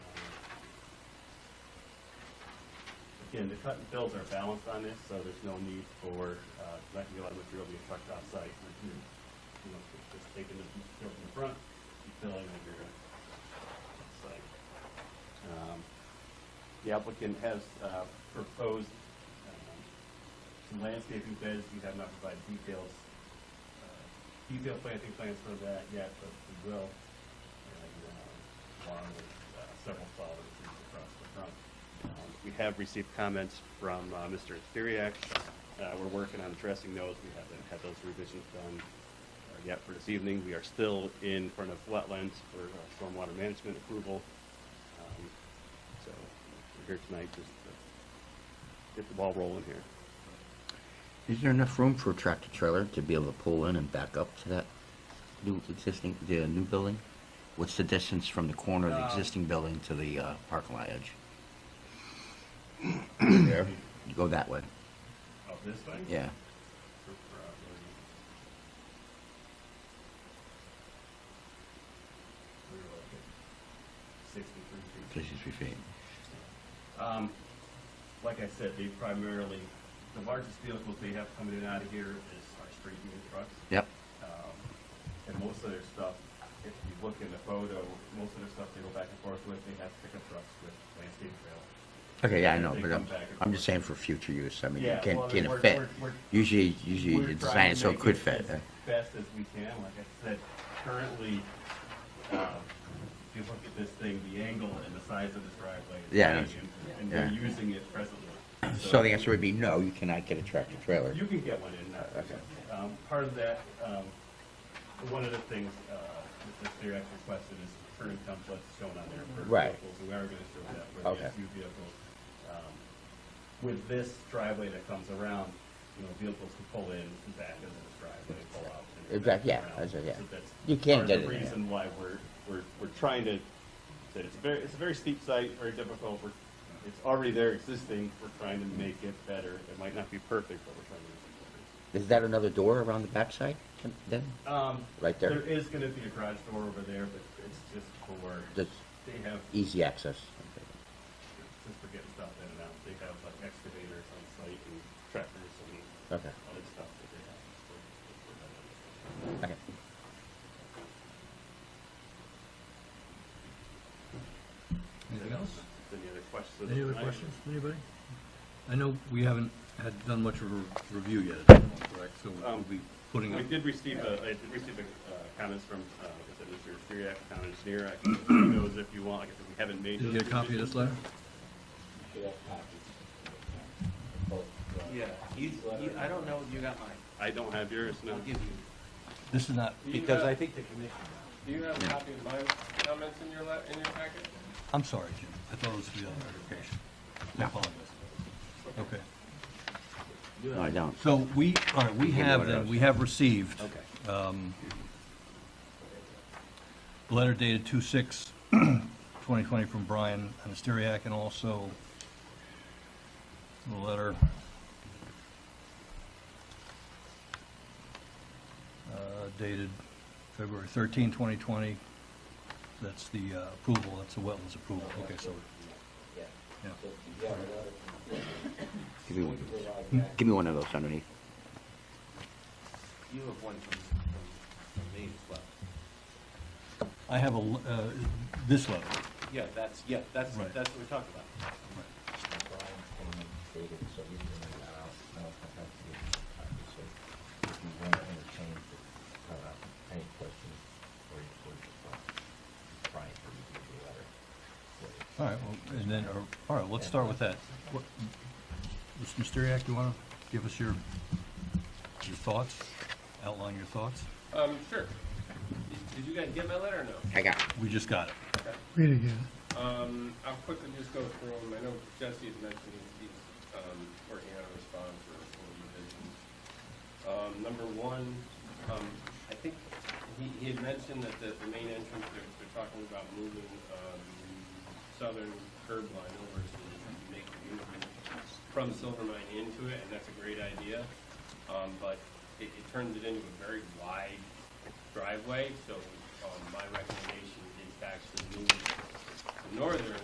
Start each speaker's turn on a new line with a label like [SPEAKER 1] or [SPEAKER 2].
[SPEAKER 1] again, the cut and fills are balanced on this, so there's no need for, uh, not to get a lot of material being trucked off site. You're- You know, it's just taking the fill from the front, you fill it, and you're gonna, it's like, um, the applicant has, uh, proposed, um, some landscaping beds, we have not provided details, uh, detailed planting plans for that yet, but we will. And, um, Along with uh, several solid trees across the front. Um, We have received comments from uh, Mr. Theriak. Uh, we're working on addressing those, we haven't had those revisions done uh, yet for this evening. We are still in front of wetlands for uh, stormwater management approval. Um, So, we're here tonight just to get the ball rolling here.
[SPEAKER 2] Is there enough room for a tractor trailer to be able to pull in and back up to that new existing, the new building? What's the distance from the corner of the
[SPEAKER 1] Um,
[SPEAKER 2] existing building to the uh, parking lot edge? There, you go that way,
[SPEAKER 1] Of this thing?
[SPEAKER 2] yeah.
[SPEAKER 1] For probably- we were like at 63 feet.
[SPEAKER 2] Fifty-three feet.
[SPEAKER 1] Um, like I said, they primarily, the largest vehicles they have coming in and out of here is our street unit trucks.
[SPEAKER 2] Yep,
[SPEAKER 1] Um, and most of their stuff, if you look in the photo, most of their stuff they go back and forth with, they have pickup trucks with landscape trail.
[SPEAKER 2] okay, yeah, I
[SPEAKER 1] They
[SPEAKER 2] know, but
[SPEAKER 1] come
[SPEAKER 2] I'm,
[SPEAKER 1] back and
[SPEAKER 2] I'm
[SPEAKER 1] forth.
[SPEAKER 2] just saying for future use, I mean, you
[SPEAKER 1] Yeah,
[SPEAKER 2] can't,
[SPEAKER 1] well, I mean,
[SPEAKER 2] can't
[SPEAKER 1] we're-
[SPEAKER 2] fit.
[SPEAKER 1] we're- we're-
[SPEAKER 2] Usually, usually
[SPEAKER 1] We're
[SPEAKER 2] you
[SPEAKER 1] trying to
[SPEAKER 2] design it so it
[SPEAKER 1] make
[SPEAKER 2] could fit.
[SPEAKER 1] as
[SPEAKER 2] huh?
[SPEAKER 1] Best as we can, like I said, currently, um, if you look at this thing, the angle and the size of the driveway. is
[SPEAKER 2] Yeah, I know.
[SPEAKER 1] big, And and
[SPEAKER 2] Yeah.
[SPEAKER 1] we're using it presently.
[SPEAKER 2] So the answer would be no, you cannot get a tractor trailer.
[SPEAKER 1] You can get one in, uh,
[SPEAKER 2] Okay.
[SPEAKER 1] um, part of that, um, one of the things, uh, that the theory actually requested is current templates shown on there for
[SPEAKER 2] Right.
[SPEAKER 1] vehicles, and we are gonna show that for the
[SPEAKER 2] Okay.
[SPEAKER 1] SU vehicles. Um, With this driveway that comes around, you know, vehicles can pull in and back into this driveway, pull out. and back
[SPEAKER 2] Exactly, yeah,
[SPEAKER 1] around.
[SPEAKER 2] that's it, yeah.
[SPEAKER 1] So that's
[SPEAKER 2] You
[SPEAKER 1] part
[SPEAKER 2] can't
[SPEAKER 1] of
[SPEAKER 2] get it in
[SPEAKER 1] The
[SPEAKER 2] there.
[SPEAKER 1] reason why we're, we're, we're trying to, that it's very, it's a very steep site, very difficult, we're, it's already there existing, we're trying to make it better. It might not be perfect, but we're trying to make it better.
[SPEAKER 2] Is that another door around the backside then?
[SPEAKER 1] Um,
[SPEAKER 2] Right there.
[SPEAKER 1] There is gonna be a garage door over there, but it's just for,
[SPEAKER 2] Just
[SPEAKER 1] they have,
[SPEAKER 2] easy access.
[SPEAKER 1] just for getting stuff in and out, they have like excavators on site and tractors and
[SPEAKER 2] Okay,
[SPEAKER 1] other stuff that they have. for- for that.
[SPEAKER 2] okay.
[SPEAKER 3] Anything else?
[SPEAKER 1] Any other questions?
[SPEAKER 3] Any other
[SPEAKER 1] tonight?
[SPEAKER 3] questions, anybody? I know we haven't had, done much of a review yet, at this point, correct, so we'll
[SPEAKER 1] Um,
[SPEAKER 3] be putting
[SPEAKER 1] We
[SPEAKER 3] up,
[SPEAKER 1] did receive, a- I did receive a, uh, comments from, uh, like I said, Mr. Siriak, town engineer, I can give you those if you want, like I said, we haven't made.
[SPEAKER 3] did you
[SPEAKER 1] those
[SPEAKER 3] get a copy of
[SPEAKER 1] decisions.
[SPEAKER 3] this letter?
[SPEAKER 4] Yeah, you, you, I don't know if you got mine.
[SPEAKER 1] I don't have yours, no.
[SPEAKER 4] I'll give you.
[SPEAKER 3] This is not, because I think the commission,
[SPEAKER 5] Do you have a copy of my comments in your, la- in your packet?
[SPEAKER 3] I'm sorry, Jim, I thought it was for the other application. I apologize. Okay,
[SPEAKER 2] No, I don't.
[SPEAKER 3] so we, all right, we
[SPEAKER 2] me
[SPEAKER 3] have,
[SPEAKER 2] what
[SPEAKER 3] then,
[SPEAKER 2] else.
[SPEAKER 3] we have received, um, a letter dated two-six, twenty-twenty from Brian Anasteriak, and also the letter uh, dated February 13, 2020. That's the uh, approval, that's the wetlands approval. Okay, so, yeah.
[SPEAKER 2] Give me one. Give me one of those underneath.
[SPEAKER 4] You have one from, from, from me as well.
[SPEAKER 3] I have a, l- uh, this letter.
[SPEAKER 4] Yeah, that's, yeah, that's,
[SPEAKER 3] Right.
[SPEAKER 4] that's what we're talking about.
[SPEAKER 3] All right, well, and then, or- all right, let's start with that. What- Mr. Mysteriak, you want to give us your, your thoughts, outline your thoughts?
[SPEAKER 5] Um, sure. Did- Did you guys get my letter or no?
[SPEAKER 2] I got it.
[SPEAKER 3] We just got it.
[SPEAKER 6] Read again.
[SPEAKER 5] Um, I'll quickly just go through them. I know Jesse had mentioned he's, he's, um, working on a response or or revisions. Um, number one, um, I think he, he had mentioned that the, the main entrance, they're, they're talking about moving, um, southern curb line over to make the movement from Silvermine into it, and that's a great idea. Um, but it, it turns it into a very wide driveway, so, um, my recommendation is to actually move the northern